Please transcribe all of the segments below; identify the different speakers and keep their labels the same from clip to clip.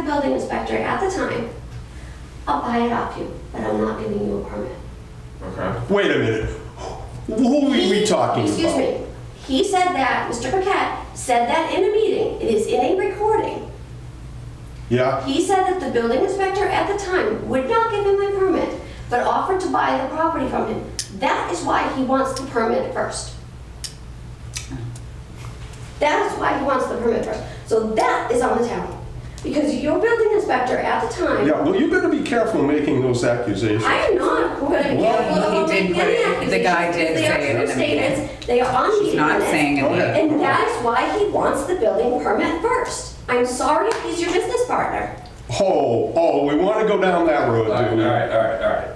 Speaker 1: the building inspector at the time, I'll buy it off you, but I'm not giving you a permit.
Speaker 2: Okay.
Speaker 3: Wait a minute. Who are we
Speaker 1: He-
Speaker 3: talking about?
Speaker 1: Excuse me. He said that, Mr. Paquette said that in a meeting, it is in a recording.
Speaker 3: Yeah,
Speaker 1: He said that the building inspector at the time would not give him a permit, but offered to buy the property from him. That is why he wants the permit first. That is why he wants the permit first. So that is on the town. Because your building inspector at the time
Speaker 3: yeah, well, you better be careful making those accusations.
Speaker 1: I am not going to be
Speaker 3: Well,
Speaker 1: careful
Speaker 4: he did
Speaker 1: making
Speaker 4: put
Speaker 1: any
Speaker 4: it-
Speaker 1: accusations.
Speaker 4: the guy did
Speaker 1: They are
Speaker 4: say
Speaker 1: true
Speaker 4: it in a meeting.
Speaker 1: statements. They are on
Speaker 4: She's
Speaker 1: meeting
Speaker 4: not
Speaker 1: minutes.
Speaker 4: saying
Speaker 3: Okay.
Speaker 4: it.
Speaker 1: And that is why he wants the building permit first. I'm sorry, he's your business partner.
Speaker 3: Oh, oh, we want to go down that road,
Speaker 2: All right, all
Speaker 3: do we?
Speaker 2: right, all right, all right.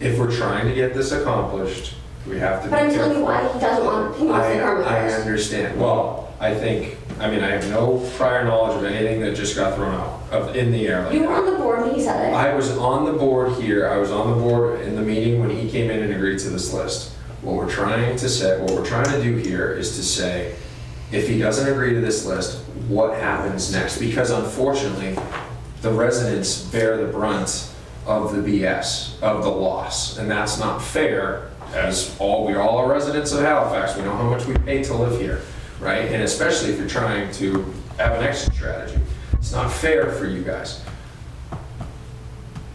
Speaker 2: If we're trying to get this accomplished, we have to be
Speaker 1: Mm-hmm. But I'm
Speaker 2: careful.
Speaker 1: telling you why he doesn't want, he wants the
Speaker 2: I,
Speaker 1: permit
Speaker 2: I
Speaker 1: first.
Speaker 2: understand. Well, I think, I mean, I have no prior knowledge of anything that just got thrown out of, in the air. like
Speaker 1: You were
Speaker 2: that.
Speaker 1: on the board when he said it.
Speaker 2: I was on the board here, I was on the board in the meeting when he came in and agreed to this list. What we're trying to say, what we're trying to do here is to say, if he doesn't agree to this list, what happens next? Because unfortunately, the residents bear the brunt of the BS, of the loss, and that's not fair, as all, we all are residents of Halifax, we know how much we pay to live here, right? And especially if you're trying to have an exit strategy, it's not fair for you guys.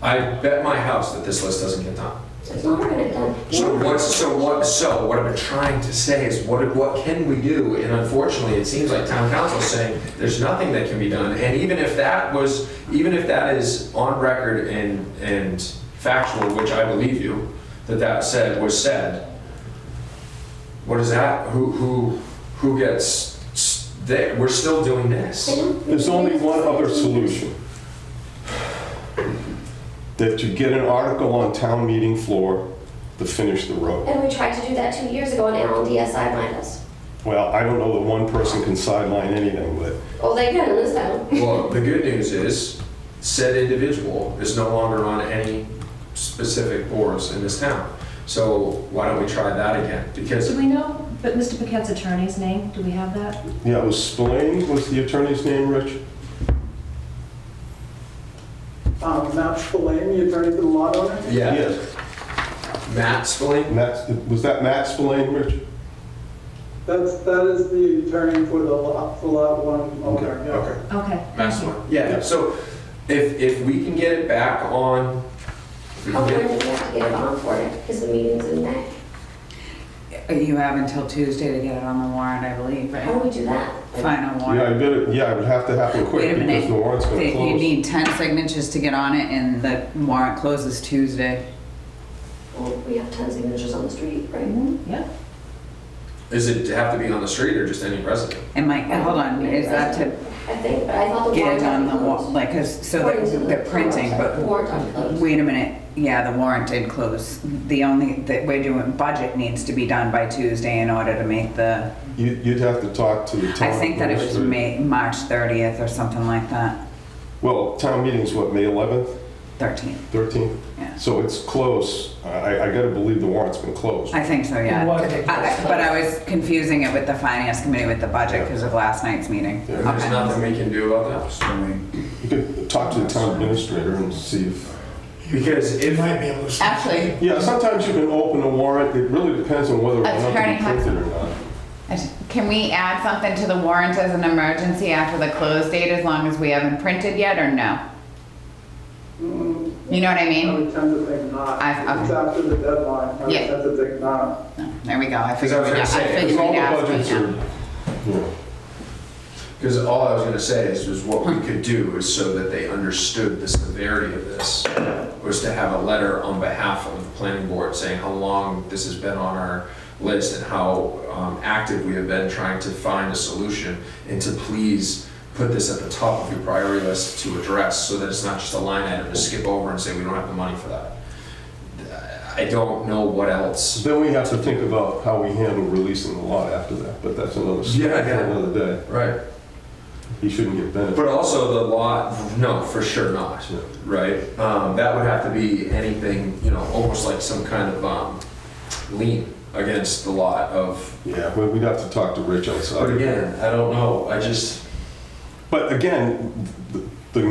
Speaker 2: I bet my house that this list doesn't get done.
Speaker 1: It's not going to get done.
Speaker 2: So what, so what, so what I've been trying to say is what, what can we do? And unfortunately, it seems like town council's saying there's nothing that can be done. And even if that was, even if that is on record and, and factual, which I believe you, that that said, was said, what is that? Who, who, who gets, s- they- we're still doing
Speaker 1: I
Speaker 2: this.
Speaker 1: don't-
Speaker 3: There's only one other solution. That you get an article on town meeting floor to finish the road.
Speaker 1: And we tried to do that two years ago and Alan Diaz sidelined us.
Speaker 3: Well, I don't know that one person can sideline anything, but
Speaker 1: Oh, they can in this town.
Speaker 2: Well, the good news is, said individual is no longer on any specific boards in this town. So why don't we try that again? Because,
Speaker 5: Do we know, but Mr. Paquette's attorney's name, do we have that?
Speaker 3: Yeah, it was Spillane, was the attorney's name, Rich?
Speaker 6: Um, Matt Spillane, the attorney for the lot owner.
Speaker 2: yeah,
Speaker 3: Yes.
Speaker 2: Matt Spillane,
Speaker 3: Matt, was that Matt Spillane, Rich?
Speaker 6: That's, that is the attorney for the lot, for lot one owner, yeah.
Speaker 2: okay.
Speaker 5: Okay.
Speaker 2: Matt Spillane, yeah, so if, if we can get it back on, if we
Speaker 1: Oh,
Speaker 2: can
Speaker 1: we
Speaker 2: get-
Speaker 1: have to get a bond for it because the meeting's in May.
Speaker 4: You have until Tuesday to get it on the warrant, I believe,
Speaker 1: How do
Speaker 4: right?
Speaker 1: we do that?
Speaker 4: Final
Speaker 3: Yeah, I
Speaker 4: warrant.
Speaker 3: better, yeah, it would have to happen
Speaker 4: Wait a
Speaker 3: quick because
Speaker 4: minute.
Speaker 3: the warrant's gonna
Speaker 4: They- You
Speaker 3: close.
Speaker 4: need 10 signatures to get on it and the warrant closes Tuesday.
Speaker 1: Well, we have tons of signatures on the street, right?
Speaker 4: Mm-hmm.
Speaker 5: Yeah.
Speaker 2: is it have to be on the street or just any resident?
Speaker 4: And Mike, hold on, is that to
Speaker 1: I think, but I thought the
Speaker 4: get
Speaker 1: warrant
Speaker 4: it on the,
Speaker 1: article
Speaker 4: wa-
Speaker 1: was-
Speaker 4: like, 'cause- so that they're printing, but
Speaker 1: Warrant article.
Speaker 4: wait a minute. Yeah, the warrant did close. The only, that we're doing, budget needs to be done by Tuesday in order to make the,
Speaker 3: You- You'd have to talk to the town.
Speaker 4: I think that it was
Speaker 3: administrator.
Speaker 4: May, March 30th or something like that,
Speaker 3: Well, town meeting's what, May 11th,
Speaker 4: 13th.
Speaker 3: 13th?
Speaker 4: Yeah.
Speaker 3: So it's close. I, I gotta believe the warrant's been closed.
Speaker 4: I think so, yeah. I- I- But I was confusing it with the finance committee with the budget because of last night's meeting.
Speaker 3: Yeah.
Speaker 2: There's
Speaker 4: Okay.
Speaker 2: nothing we can do about that.
Speaker 3: You could talk to the town administrator and see if,
Speaker 2: Because if,
Speaker 4: Actually,
Speaker 3: yeah, sometimes you can open a warrant. It really depends on whether or not
Speaker 4: Attorney
Speaker 3: it's
Speaker 4: Hudson.
Speaker 3: printed or not.
Speaker 4: Can we add something to the warrant as an emergency after the close date as long as we haven't printed yet or no?
Speaker 6: Mm,
Speaker 4: You know what I
Speaker 6: I
Speaker 4: mean?
Speaker 6: would tend to think not.
Speaker 4: I- okay.
Speaker 6: It's after the deadline, I would
Speaker 4: Yeah.
Speaker 6: tend to think not.
Speaker 4: No, Oh, There we go.
Speaker 2: Because
Speaker 4: I
Speaker 2: I
Speaker 4: figured
Speaker 2: was
Speaker 4: we'd, I
Speaker 2: gonna say,
Speaker 4: figured
Speaker 3: Because
Speaker 4: we'd
Speaker 3: all the
Speaker 4: ask
Speaker 3: budgets
Speaker 4: right
Speaker 3: are,
Speaker 4: now.
Speaker 3: you know,
Speaker 2: Because all I was gonna say is, was what we could do is so that they understood the severity of this, was to have a letter on behalf of the planning board saying how long this has been on our list and how um, active we have been trying to find a solution, and to please put this at the top of your priority list to address, so that it's not just a line item to skip over and say, we don't have the money for that. I don't know what else.
Speaker 3: Then we have to think about how we handle releasing the lot after that, but that's another story
Speaker 2: Yeah,
Speaker 3: for
Speaker 2: yeah.
Speaker 3: another day.
Speaker 2: Right.
Speaker 3: He shouldn't get benefit.
Speaker 2: But also the lot, no, for sure not.
Speaker 3: Yeah.
Speaker 2: right? Um, that would have to be anything, you know, almost like some kind of um, lien against the lot of.
Speaker 3: Yeah, we- we'd have to talk to Rich
Speaker 2: But
Speaker 3: outside.
Speaker 2: again, I don't know. I just
Speaker 3: But again, th-